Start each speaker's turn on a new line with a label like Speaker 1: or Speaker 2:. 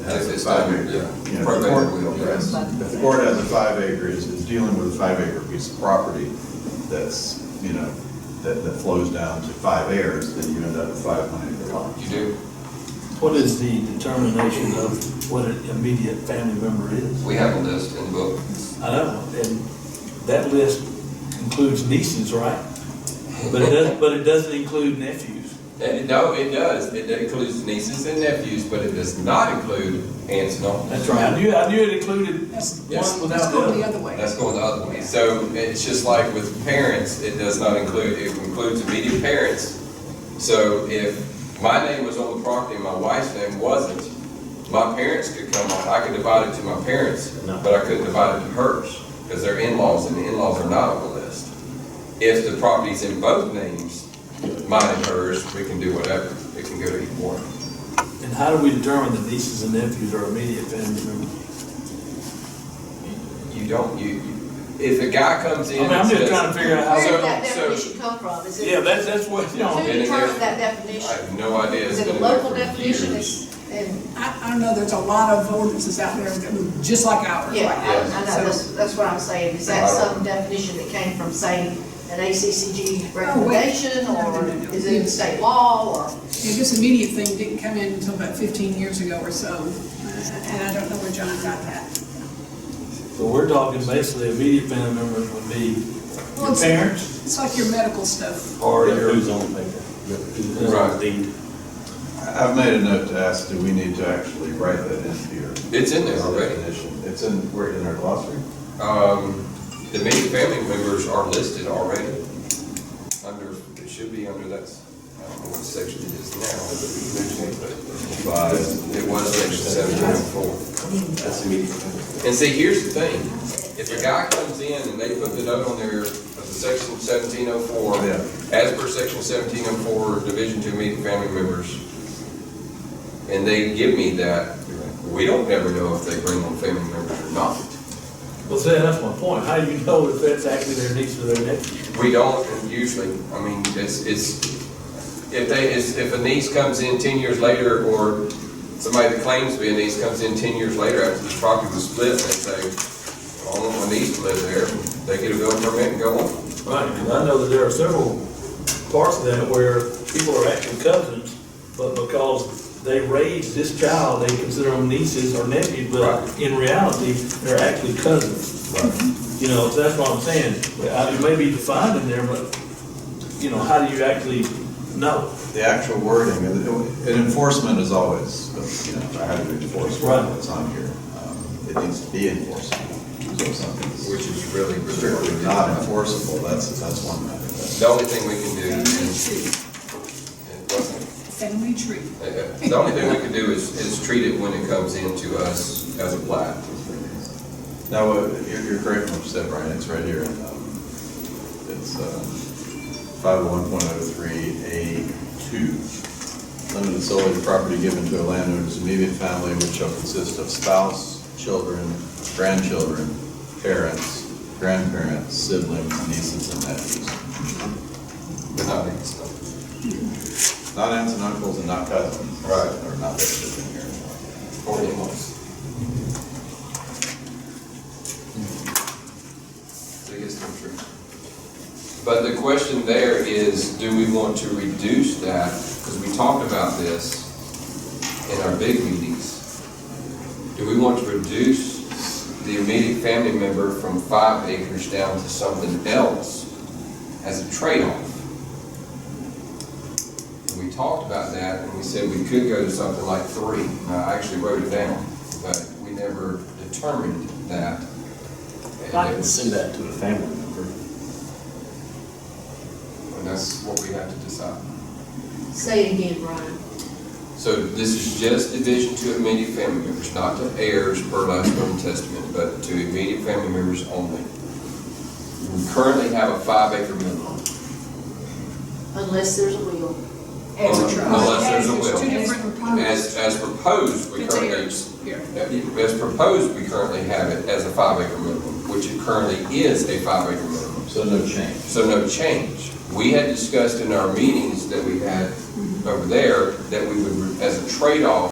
Speaker 1: is five acre,
Speaker 2: Yeah.
Speaker 1: yeah, right there, we don't
Speaker 2: Yes.
Speaker 1: address.
Speaker 2: If the court has a five acre, it's, it's dealing with a five acre piece of property that's, you know, that, that flows down to five acres, then you end up with five hundred acre lots.
Speaker 1: You do,
Speaker 3: What is the determination of what an immediate family member is?
Speaker 1: we have a list in the book.
Speaker 3: I know, and that list includes nieces, right? But it doesn't, but it doesn't include nephews.
Speaker 1: And it- no, it does, it includes nieces and nephews, but it does not include aunts and uncles.
Speaker 3: That's right. I knew, I knew it included
Speaker 1: Yes.
Speaker 3: one
Speaker 4: Let's
Speaker 3: without the
Speaker 4: go the
Speaker 3: other.
Speaker 4: other way.
Speaker 1: That's going the other way. So it's just like with parents, it does not include, it includes immediate parents. So if my name was on the property and my wife's name wasn't, my parents could come on, I could divide it to my parents, but I couldn't divide it to hers, because they're in-laws, and the in-laws are not on the list. If the property's in both names, mine and hers, we can do whatever, it can go to either one.
Speaker 3: And how do we determine that nieces and nephews are immediate family members?
Speaker 1: You don't, you, you- if a guy comes
Speaker 3: I
Speaker 1: in
Speaker 3: mean,
Speaker 1: and
Speaker 3: I'm just
Speaker 1: says.
Speaker 3: trying to figure out
Speaker 4: Where
Speaker 3: how,
Speaker 1: So-
Speaker 4: did that definition come from? Is it?
Speaker 3: yeah, that's, that's what, you
Speaker 4: Who
Speaker 3: know.
Speaker 4: determined
Speaker 1: I
Speaker 4: that definition?
Speaker 1: have no idea. It's
Speaker 4: Is it a
Speaker 1: been in there
Speaker 4: local
Speaker 1: for
Speaker 4: definition?
Speaker 1: years.
Speaker 4: It's- And,
Speaker 5: I, I know there's a lot of ordinances out there that look just like ours.
Speaker 4: yeah,
Speaker 1: Yes.
Speaker 4: I, I know, that's, that's what I'm saying. Is that
Speaker 1: I don't-
Speaker 4: some definition that came from, say, an ACCG
Speaker 5: Oh, wait.
Speaker 4: recommendation?
Speaker 5: No, no,
Speaker 4: Or
Speaker 5: no, no.
Speaker 4: is it state law or?
Speaker 5: Yeah, this immediate thing didn't come in until about fifteen years ago or so, uh, and I don't know where John got that.
Speaker 3: So we're talking basically immediate family members would be
Speaker 5: Well,
Speaker 3: your
Speaker 5: it's-
Speaker 3: parents
Speaker 5: It's like your medical stuff.
Speaker 3: or your.
Speaker 6: Who's on paper?
Speaker 1: Right.
Speaker 2: I- I've made a note to ask, do we need to actually write that in here?
Speaker 1: It's in there already.
Speaker 2: Definition. It's in, we're in our glossary.
Speaker 1: Um, the main family members are listed already. Under, it should be under that, I don't know what section it is now. but It was section seven twenty-four.
Speaker 2: That's immediate.
Speaker 1: And see, here's the thing, if a guy comes in and they put the note on there of the section seventeen oh four,
Speaker 2: Yeah.
Speaker 1: as per section seventeen oh four, division two immediate family members, and they give me that, we don't never know if they bring on family members or not.
Speaker 3: Well, see, that's my point. How do you know if that's actually their niece or their nephew?
Speaker 1: We don't usually, I mean, it's, it's, if they, it's- if a niece comes in ten years later, or somebody that claims to be a niece comes in ten years later after the property was split, they say, I want my niece to live there, they get a building permit and go on.
Speaker 3: Right, because I know that there are several parts of that where people are actually cousins, but because they raised this child, they consider them nieces or nephews, but
Speaker 1: Right.
Speaker 3: in reality, they're actually cousins. You know, so that's what I'm saying. I- It may be defined in there, but, you know, how do you actually know?
Speaker 2: The actual wording, and and enforcement is always, you know, I have to enforce
Speaker 3: Right.
Speaker 2: what's on here. Um, It needs to be enforced. So if
Speaker 1: Which
Speaker 2: something's
Speaker 1: is really,
Speaker 2: strictly
Speaker 1: really
Speaker 2: not
Speaker 1: not.
Speaker 2: enforceable, that's, that's one method.
Speaker 1: The only thing we can do
Speaker 5: Family
Speaker 1: is,
Speaker 5: tree,
Speaker 1: it wasn't-
Speaker 5: family tree.
Speaker 1: uh, the only thing we can do is, is treat it when it comes into us as a plat.
Speaker 2: Now, uh, you're, you're correct in what you said, Brian, it's right here, in, um, it's, uh, five one point oh three A two. Limited solely to property given to a landowner's immediate family, which shall consist of spouse, children, grandchildren, parents, grandparents, siblings, nieces, and nephews.
Speaker 1: But not it's not.
Speaker 2: Not aunts and uncles and not cousins.
Speaker 1: Right.
Speaker 2: Or not listed in here.
Speaker 1: Or in-laws. So I guess that's true. But the question there is, do we want to reduce that? Because we talked about this in our big meetings. Do we want to reduce the immediate family member from five acres down to something else as a trade-off? And we talked about that, and we said we could go to something like three. And I actually wrote it down, but we never determined that. And
Speaker 6: I
Speaker 1: it
Speaker 6: can
Speaker 1: was-
Speaker 6: send that to a family member.
Speaker 1: And that's what we have to decide.
Speaker 4: Say it again, Brian.
Speaker 1: So this is just division to immediate family members, not to heirs per last will and testament, but to immediate family members only. We currently have a five acre minimum.
Speaker 4: Unless there's a will.
Speaker 1: Unless there's a
Speaker 5: There's two
Speaker 1: will.
Speaker 5: different
Speaker 1: As, as proposed, we
Speaker 5: It's
Speaker 1: currently,
Speaker 5: heirs, yeah.
Speaker 1: as proposed, we currently have it as a five acre minimum, which it currently is a five acre minimum.
Speaker 2: So no change.
Speaker 1: So no change. We had discussed in our meetings that we had over there, that we would, as a trade-off,